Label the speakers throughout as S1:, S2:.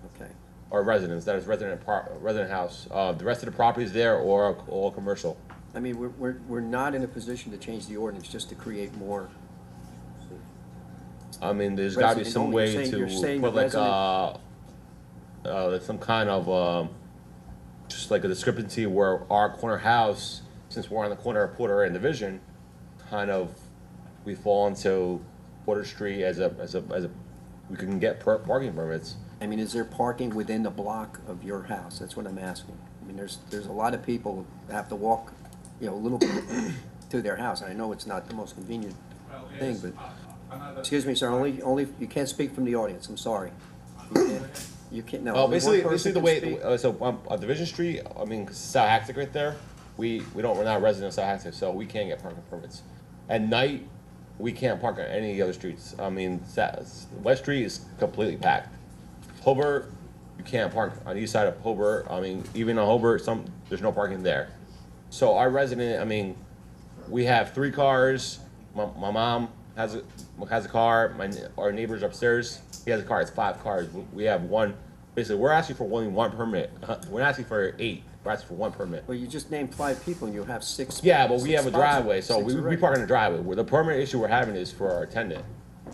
S1: anything, or residence, that is resident par, resident house. Uh, the rest of the properties there or all commercial.
S2: I mean, we're, we're, we're not in a position to change the ordinance just to create more.
S1: I mean, there's gotta be
S2: Resident
S1: some
S2: only.
S1: way
S2: You're saying- you're
S1: to
S2: saying
S1: put
S2: the
S1: like, uh, uh, like some kind of, um, just like a discrepancy where our corner house, since we're on the corner of Porter and Division, kind of, we fall into Porter Street as a, as a, as a, we can get per- parking permits.
S2: I mean, is there parking within the block of your house? That's what I'm asking. I mean, there's, there's a lot of people that have to walk, you know, a little bit to their house, and I know it's not the most convenient
S3: Well,
S2: thing,
S3: it's
S2: but,
S3: a- another-
S2: excuse me, sir, only, only, you can't speak from the audience, I'm sorry. You can't, no.
S1: Well,
S2: only one
S1: Oh, basically,
S2: person
S1: basically the
S2: can
S1: way,
S2: speak.
S1: uh, so on, on Division Street, I mean, South Hactic right there, we, we don't, we're not residents of South Hactic, so we can't get parking permits. At night, we can't park on any of the other streets. I mean, Sa- West Street is completely packed. Hobart, you can't park on east side of Hobart. I mean, even on Hobart, some, there's no parking there. So our resident, I mean, we have three cars. My, my mom has a has a car. My ne- our neighbors upstairs. He has a car. It's five cars. We- We have one. Basically, we're asking for only one permit. We're not asking for eight. We're asking for one permit.
S2: Well, you just named five people, and you have six.
S1: Yeah, but we
S2: six
S1: have a
S2: spots.
S1: driveway, so
S2: Six
S1: we, we
S2: already.
S1: park in the driveway. Where the permit issue we're having is for our attendant.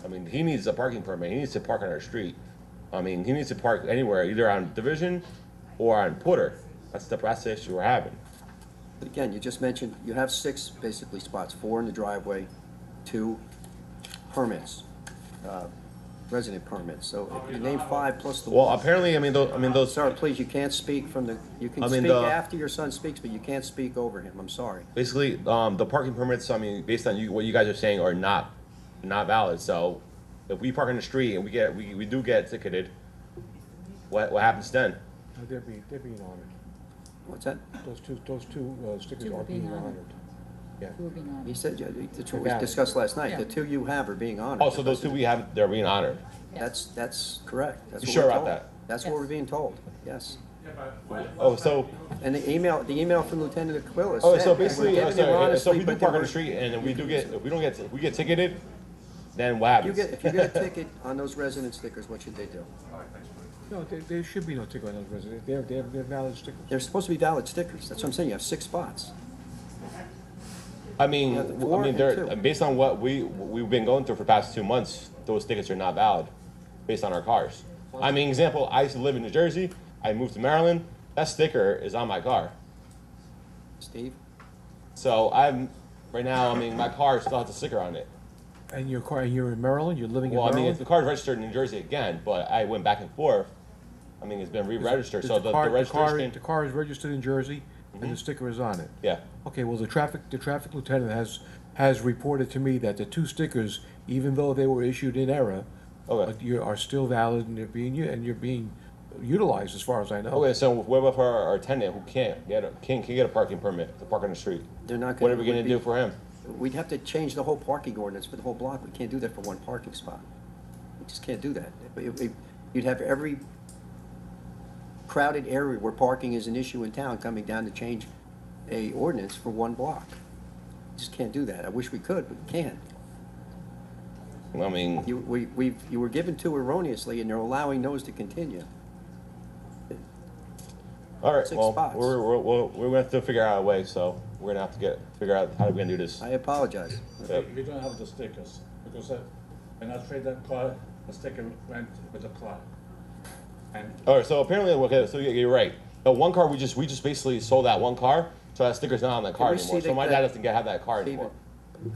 S1: I mean, he needs a parking permit. He needs to park on our street. I mean, he needs to park anywhere, either on Division or on Porter. That's the that's the issue we're having.
S2: But Again, you just mentioned, you have six basically spots, four in the driveway, two permits, uh, resident permits, so if you name five plus the.
S1: Well, apparently, I mean, those, I mean, those
S2: Sir, please, you can't speak from the, you can
S1: I mean,
S2: speak
S1: the-
S2: after your son speaks, but you can't speak over him, I'm sorry.
S1: Basically, um, the parking permits, I mean, based on you, what you guys are saying are not, not valid, so if we park in the street and we get, we, we do get ticketed, what, what happens then?
S4: No, Uh, They're being, they're being honored.
S2: What's that?
S4: Those two, those two uh, stickers
S5: Two are
S4: are being
S5: being honored.
S4: honored. Yeah.
S5: Moving on.
S2: He said, yeah, that's what we
S4: Valid.
S2: discussed last night, the
S5: Yeah.
S2: two you have are being honored.
S1: Oh, so those two we have, they're being honored.
S2: That's, that's correct, that's
S1: You
S2: what
S1: sure
S2: we're
S1: about
S2: told.
S1: that?
S2: That's what
S5: Yes.
S2: we're being told, yes.
S3: Yeah, but what-
S1: Oh, so,
S2: And the email, the email from Lieutenant Aquila
S1: oh,
S2: said,
S1: so
S2: we're
S1: basically,
S2: giving
S1: I'm
S2: him
S1: sorry, so
S2: honestly,
S1: if we do
S2: but there
S1: park on the
S2: were-
S1: street and then we do get, if we don't get, if we get ticketed, then what
S2: You
S1: happens?
S2: get, if you get a ticket on those resident stickers, what should they do?
S4: No, there, there should be no ticker on those residents. They're, they're, they're valid stickers.
S2: They're supposed to be valid stickers, that's what I'm saying, you have six spots.
S1: I mean,
S2: Yeah, the
S1: w-
S2: four
S1: I mean,
S2: and
S1: they're,
S2: two.
S1: based on what we, we've been going through for the past two months, those tickets are not valid, based on our cars. I mean, example, I used to live in New Jersey, I moved to Maryland, that sticker is on my car.
S2: Steve,
S1: So I'm, right now, I mean, my car still has the sticker on it.
S4: And your car, and you're in Maryland, you're living in
S1: Well, I mean,
S4: Maryland?
S1: the car's registered in New Jersey again, but I went back and forth. I mean, it's been re-registered,
S4: Does
S1: so the, Mm-hmm.
S4: car-
S1: the
S4: car- The
S1: registration,
S4: car is registered in Jersey and the sticker is on it.
S1: yeah.
S4: Okay, well, the traffic, the traffic lieutenant has, has reported to me that the two stickers, even though they were issued in error,
S1: Okay.
S4: uh, you are still valid and you're being, u- and you're being utilized as far as I know.
S1: Okay, so what about for our our tenant who can't get a, can't, can't get a parking permit to park on the street?
S2: They're not gonna-
S1: What are we gonna
S2: would be-
S1: do for him?
S2: we'd have to change the whole parking ordinance for the whole block, we can't do that for one parking spot. We just can't do that. It- it- You'd have every crowded area where parking is an issue in town coming down to change a ordinance for one block. Just can't do that, I wish we could, but we can't.
S1: I mean.
S2: You, we, we, you were given two erroneously, and they're allowing those to continue.
S1: All right,
S2: Six
S1: well,
S2: spots.
S1: we're, we're, we're, we're gonna have to figure out a way, so we're gonna have to get, figure out how we're gonna do this.
S2: I apologize.
S1: Yep.
S6: We don't have the stickers, because uh, when I trade that car, the sticker went with the car. And
S1: All right, so apparently, okay, so you- you're right. The one car, we just, we just basically sold that one car, so that sticker's not on that car
S2: we
S1: anymore,
S2: see
S1: so
S2: the-
S1: my
S2: that-
S1: dad doesn't get, have that car
S2: David,
S1: anymore.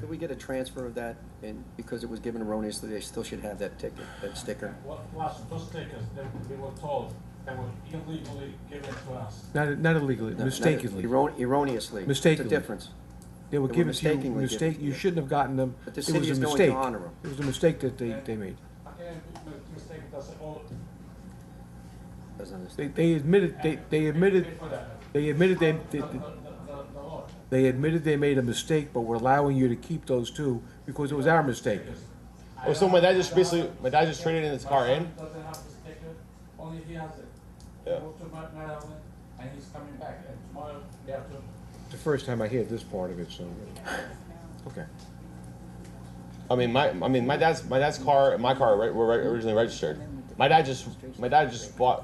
S2: could we get a transfer of that, and because it was given erroneously, they still should have that ticket, that sticker?
S6: what, last, those stickers, that we were told, they were illegally given to us.
S4: Not, not illegally,
S2: No, not-
S4: mistakeously.
S2: erro- Erroneously.
S4: Mistakenly.
S2: It's a difference.
S4: They were
S2: They were
S4: given to you,
S2: mistakenly
S4: mistake,
S2: given,
S4: you
S2: yeah.
S4: shouldn't have gotten them.
S2: But the
S4: It
S2: city
S4: was a
S2: is going to
S4: mistake.
S2: honor 'em.
S4: It was a mistake that they, they made.
S6: And mistake, that's all.
S2: Doesn't understand.
S4: They, they admitted, they, they admitted,
S6: For that,
S4: they admitted they,
S6: the,
S4: they,
S6: the, the, the law.
S4: they admitted they made a mistake, but we're allowing you to keep those two because it was our mistake.
S1: Well, Oh, so my dad just basically, my dad just traded in his car in,
S6: Doesn't have the sticker, only he has it.
S1: Yeah.
S6: Moved to Ma- Maryland, and he's coming back, and tomorrow they have to
S4: The first time I hear this part of it, so, okay.
S1: I mean, my, I mean, my dad's, my dad's car and my car were were originally registered. My dad just, my dad just bought,